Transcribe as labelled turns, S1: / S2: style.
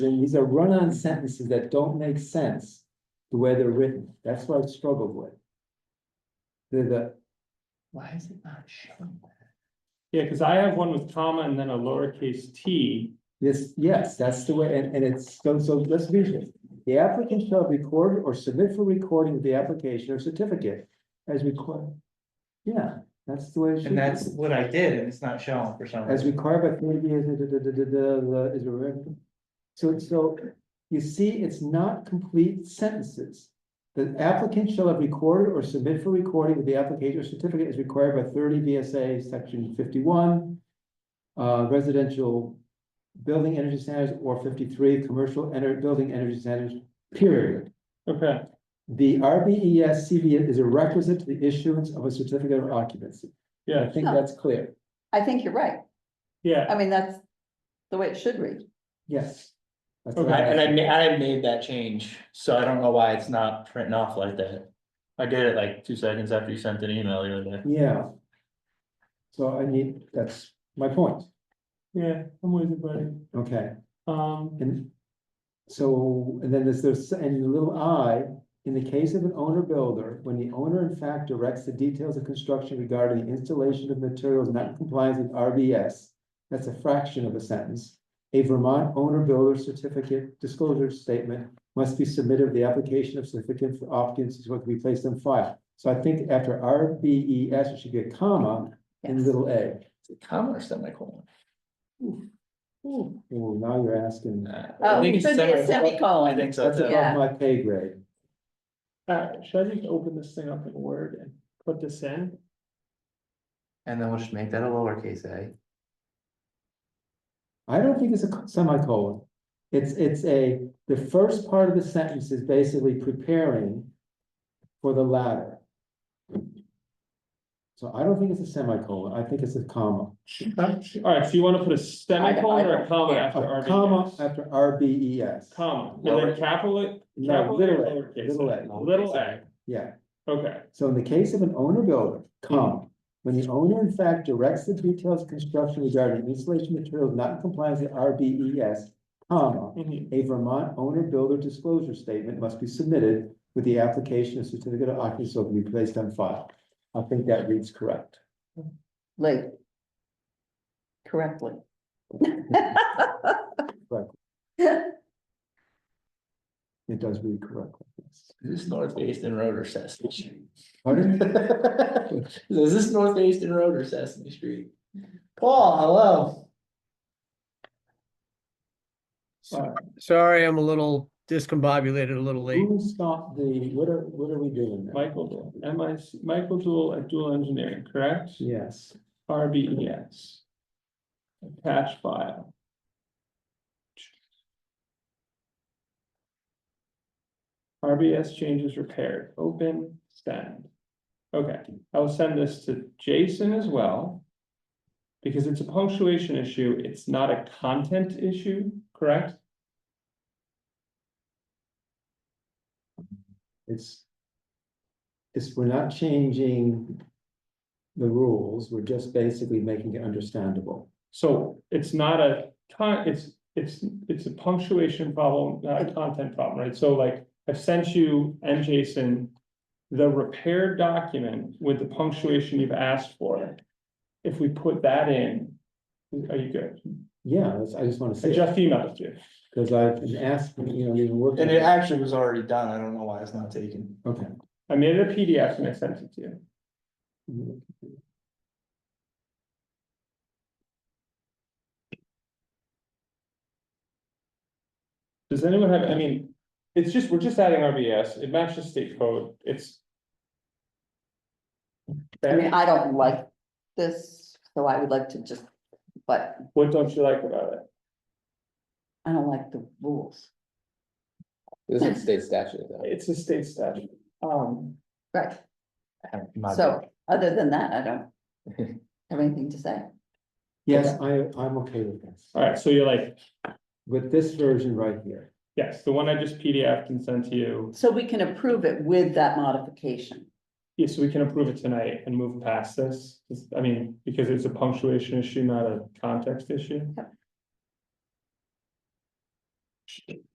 S1: Then these are run-on sentences that don't make sense the way they're written. That's what I struggled with. The, the,
S2: Why is it not showing?
S3: Yeah, because I have one with comma and then a lowercase t.
S1: Yes, yes, that's the way, and, and it's, so, so let's read it. The applicant shall record or submit for recording of the application or certificate as required. Yeah, that's the way. it should be.
S2: And that's what I did, and it's not showing for some
S1: As
S2: reason.
S1: required by community is, da- da- da- da- da- da- is, a- so, so you see, it's not complete sentences. The applicant shall have recorded or submit for recording of the application or certificate is required by thirty VSA section fifty-one. Uh, residential building energy standards or fifty-three, commercial ener- building energy standards, period.
S3: Okay,
S1: The E RBES CV is a requisite to the issuance of a certificate of occupancy. I
S3: yeah,
S1: think
S4: Yeah.
S1: that's clear,
S4: I think you're right.
S3: yeah.
S4: I mean, that's the way it should read.
S1: yes. That's what
S3: Okay,
S1: I
S2: I- And I
S1: asked.
S2: ma- I made that change, so I don't know why it's not printing off like that. I did it like two seconds after you sent an email the other day.
S1: Yeah. So I need, that's my point,
S3: Yeah, I'm with you, buddy.
S1: okay,
S3: Um,
S1: and. So, and then there's, there's, and the little I, in the case of an owner builder, when the owner in fact directs the details of construction regarding the installation of materials not in compliance with RBS. That's a fraction of a sentence. A Vermont owner builder certificate disclosure statement must be submitted with the application of certificate for occupancy, so it can be placed on file. So I think after RBES, it should be a comma and
S4: Yes.
S1: little a.
S2: Is it comma or semicolon?
S4: Ooh.
S1: Well, now you're asking,
S2: Nah, I
S4: Oh,
S2: think
S4: it
S2: it's
S4: should be a
S2: semicolon. I
S4: semicolon.
S2: think so
S1: that's
S2: too.
S4: Yeah.
S1: above my pay grade.
S3: uh, should I just open this thing up in Word and put this in?
S2: And then we'll just make that a lowercase eh? a.
S1: I don't think it's a semicolon. It's, it's a, the first part of the sentence is basically preparing for the latter. So I don't think it's a semicolon. I think it's a comma.
S3: Huh? All right, so you want to put a semicolon or a comma
S4: yeah,
S3: after E
S1: A
S3: RBS?
S1: comma after RBES.
S3: Comma, and then
S2: Lower-
S3: capital,
S1: No,
S3: capital
S1: little
S3: or
S1: a,
S3: lowercase
S1: little
S3: a?
S1: a.
S3: Little a,
S1: Yeah.
S3: okay.
S1: So in the case of an owner builder, comma, when the owner in fact directs the details of construction regarding installation materials not in compliance with RBES, comma,
S3: Mhm.
S1: a Vermont owner builder disclosure statement must be submitted with the application of certificate of occupancy so it can be placed on file. I think that reads correct.
S4: Like. Correctly.
S1: It does read correctly. yes.
S2: Is this North Basin Road or Sesame Street?
S1: Pardon?
S2: Is this North Basin Road or Sesame Street? Paul, hello.
S5: Sorry, I'm a little discombobulated, a little late.
S1: Who stopped the, what are, what are we doing now?
S3: Michael Dool, M I C, Michael Dool at Dual Engineering, correct?
S1: Yes,
S3: RBES. E Attach file. RBS E changes repaired, open, send. Okay, I'll send this to Jason as well. Because it's a punctuation issue, it's not a content issue, correct?
S1: it's. It's, we're not changing the rules, we're just basically making it understandable.
S3: So it's not a con, it's, it's, it's a punctuation problem, not a content problem, right? So like, I've sent you and Jason. The repaired document with the punctuation you've asked for. If we put that in, are you good?
S1: Yeah, that's, I just wanna
S3: I
S1: say,
S3: just emailed you.
S1: because I've been asking, you know, you've been working.
S2: And it actually was already done. I don't know why it's not taken.
S1: Okay.
S3: I made it a PDF and I sent it to you. Does anyone have, I mean, it's just, we're just adding RBS, it matches state code, it's.
S4: I mean, I don't like this, so I would like to just, but
S3: What don't you like about it?
S4: I don't like the rules.
S6: This is state statute though.
S3: It's a state statute. Um,
S4: Right,
S2: I haven't- my
S4: so other than that, I don't have anything to say.
S1: Yes, I, I'm okay with this,
S3: all right, so you're like,
S1: with this version right here.
S3: yes, the one I just PDFed and sent to you,
S4: So we can approve it with that modification.
S3: yes, we can approve it tonight and move past this. This- I mean, because it's a punctuation issue, not a context issue.